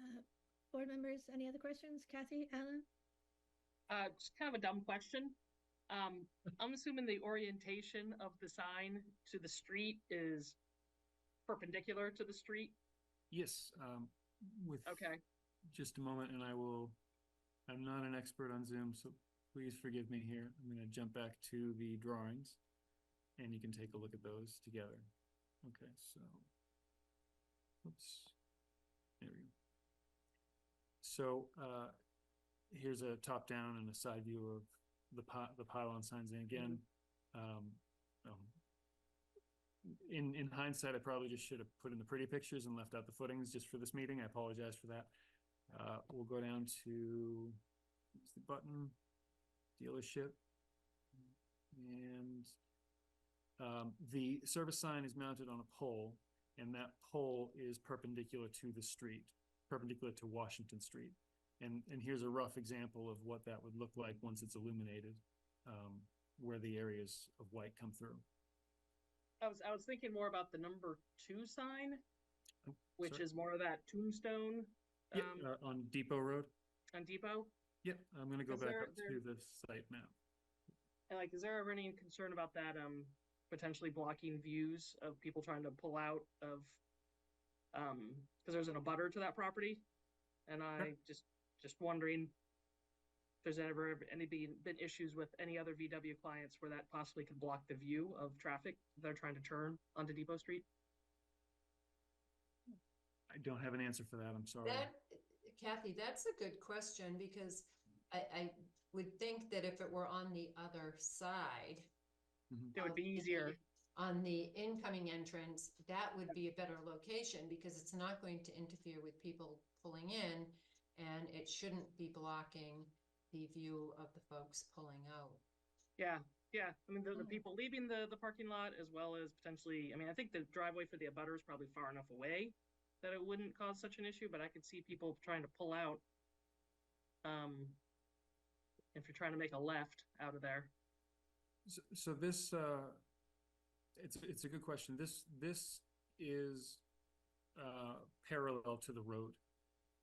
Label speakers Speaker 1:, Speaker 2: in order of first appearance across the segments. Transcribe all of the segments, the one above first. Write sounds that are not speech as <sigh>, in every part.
Speaker 1: Uh, Board members, any other questions? Kathy, Alan?
Speaker 2: Uh, just kind of a dumb question. Um, I'm assuming the orientation of the sign to the street is perpendicular to the street.
Speaker 3: Yes, um, with
Speaker 2: Okay,
Speaker 3: just a moment and I will, I'm not an expert on Zoom, so please forgive me here. I'm gonna jump back to the drawings and you can take a look at those together. Okay, so, oops, there we go. So, uh, here's a top-down and a side view of the pi- the pylon signs and again, um, um, in, in hindsight, I probably just should have put in the pretty pictures and left out the footings just for this meeting. I apologize for that. Uh, we'll go down to, what's the button? Dealership. And, um, the service sign is mounted on a pole and that pole is perpendicular to the street, perpendicular to Washington Street. And, and here's a rough example of what that would look like once it's illuminated, um, where the areas of white come through.
Speaker 2: I was, I was thinking more about the number two sign,
Speaker 3: Oh,
Speaker 2: which
Speaker 3: sorry.
Speaker 2: is more of that tombstone,
Speaker 3: Yeah,
Speaker 2: um,
Speaker 3: uh, on Depot Road.
Speaker 2: on Depot.
Speaker 3: Yep, I'm gonna go
Speaker 2: Is
Speaker 3: back
Speaker 2: there-
Speaker 3: up to the site map.
Speaker 2: And like, is there ever any concern about that, um, potentially blocking views of people trying to pull out of, um, cause there's an abutter to that property? And I just, just wondering if there's ever any been, been issues with any other VW clients where that possibly could block the view of traffic they're trying to turn onto Depot Street?
Speaker 3: I don't have an answer for that, I'm
Speaker 2: Oh,
Speaker 3: sorry.
Speaker 4: That, Kathy, that's a good question because I, I would think that if it were on the other side.
Speaker 3: Mhm.
Speaker 2: It would
Speaker 4: of
Speaker 2: be
Speaker 4: the-
Speaker 2: easier.
Speaker 4: On the incoming entrance, that would be a better location because it's not going to interfere with people pulling in. And it shouldn't be blocking the view of the folks pulling out.
Speaker 2: Yeah, yeah. I mean, the, the
Speaker 4: Mm.
Speaker 2: people leaving the, the parking lot as well as potentially, I mean, I think the driveway for the abutter is probably far enough away that it wouldn't cause such an issue, but I could see people trying to pull out. Um, if you're trying to make a left out of there.
Speaker 3: So, so this, uh, it's, it's a good question. This, this is, uh, parallel to the road.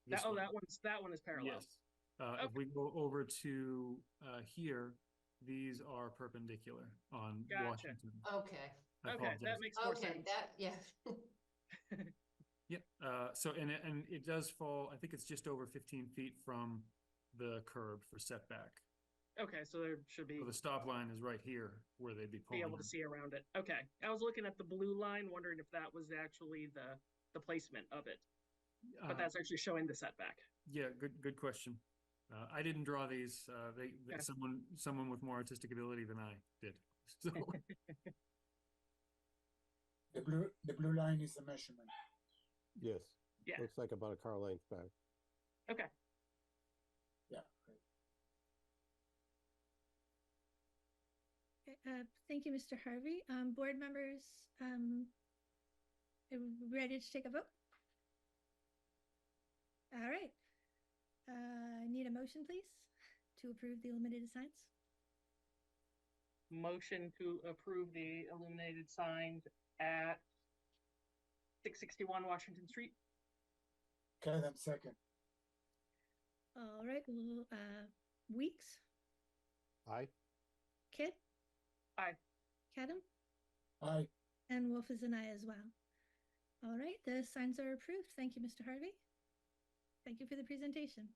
Speaker 2: That,
Speaker 3: This
Speaker 2: oh,
Speaker 3: one.
Speaker 2: that one's, that one is parallel.
Speaker 3: Yes. Uh, if we go over to, uh, here, these are perpendicular on
Speaker 2: Gotcha.
Speaker 3: Washington.
Speaker 4: Okay,
Speaker 3: I
Speaker 2: Okay,
Speaker 3: apologize.
Speaker 2: that makes more
Speaker 4: okay,
Speaker 2: sense.
Speaker 4: that, yeah.
Speaker 3: Yeah, uh, so, and, it- and it does fall, I think it's just over fifteen feet from the curb for setback.
Speaker 2: Okay, so there should be,
Speaker 3: So the stop line is right here where they'd be
Speaker 2: be
Speaker 3: pulling.
Speaker 2: able to
Speaker 3: in.
Speaker 2: see around it. Okay. I was looking at the blue line, wondering if that was actually the, the placement of it,
Speaker 3: Uh,
Speaker 2: but that's actually showing the setback.
Speaker 3: Yeah, good, good question. Uh, I didn't draw these, uh, they, they-
Speaker 2: Okay.
Speaker 3: someone, someone with more artistic ability than I did. <laughs> So,
Speaker 5: The blue, the blue line is the measurement.
Speaker 6: Yes.
Speaker 2: Yeah.
Speaker 6: Looks like about a car length back.
Speaker 1: Okay, Uh, thank you, Mr. Harvey. Um, board members, um, are we ready to take a vote? All right. Uh, I need a motion, please, to approve the illuminated signs.
Speaker 2: motion to approve the illuminated signs at six sixty-one Washington Street.
Speaker 5: Kadam second.
Speaker 1: All right, l- uh, Weeks,
Speaker 6: Aye.
Speaker 1: Kid?
Speaker 2: Aye.
Speaker 1: Kadam?
Speaker 5: Aye.
Speaker 1: And Wolf is an aye as well. All right, the signs are approved. Thank you, Mr. Harvey. Thank you for the presentation.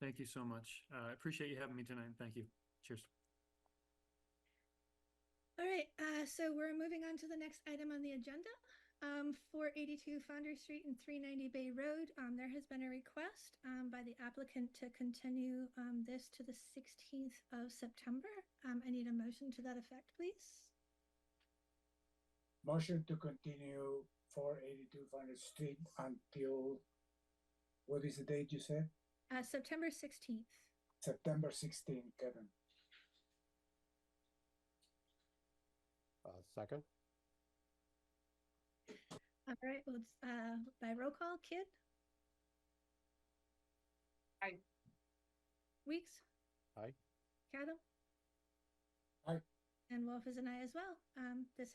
Speaker 3: thank you so much. Uh, I appreciate you having me tonight. Thank you. Cheers.
Speaker 1: All right, uh, so we're moving on to the next item on the agenda. Um, four eighty-two Founder Street and three ninety Bay Road, um, there has been a request, um, by the applicant to continue, um, this to the sixteenth of September. Um, I need a motion to that effect, please.
Speaker 5: Motion to continue four eighty-two Founder Street until, what is the date you said?
Speaker 1: Uh, September sixteenth.
Speaker 5: September sixteenth, Kevin.
Speaker 6: Uh, second.
Speaker 1: All right, well, it's, uh, by roll call, Kid?
Speaker 2: Aye.
Speaker 1: Weeks?
Speaker 6: Aye.
Speaker 1: Cadam?
Speaker 5: Aye.
Speaker 1: And Wolf is an aye as well. Um, this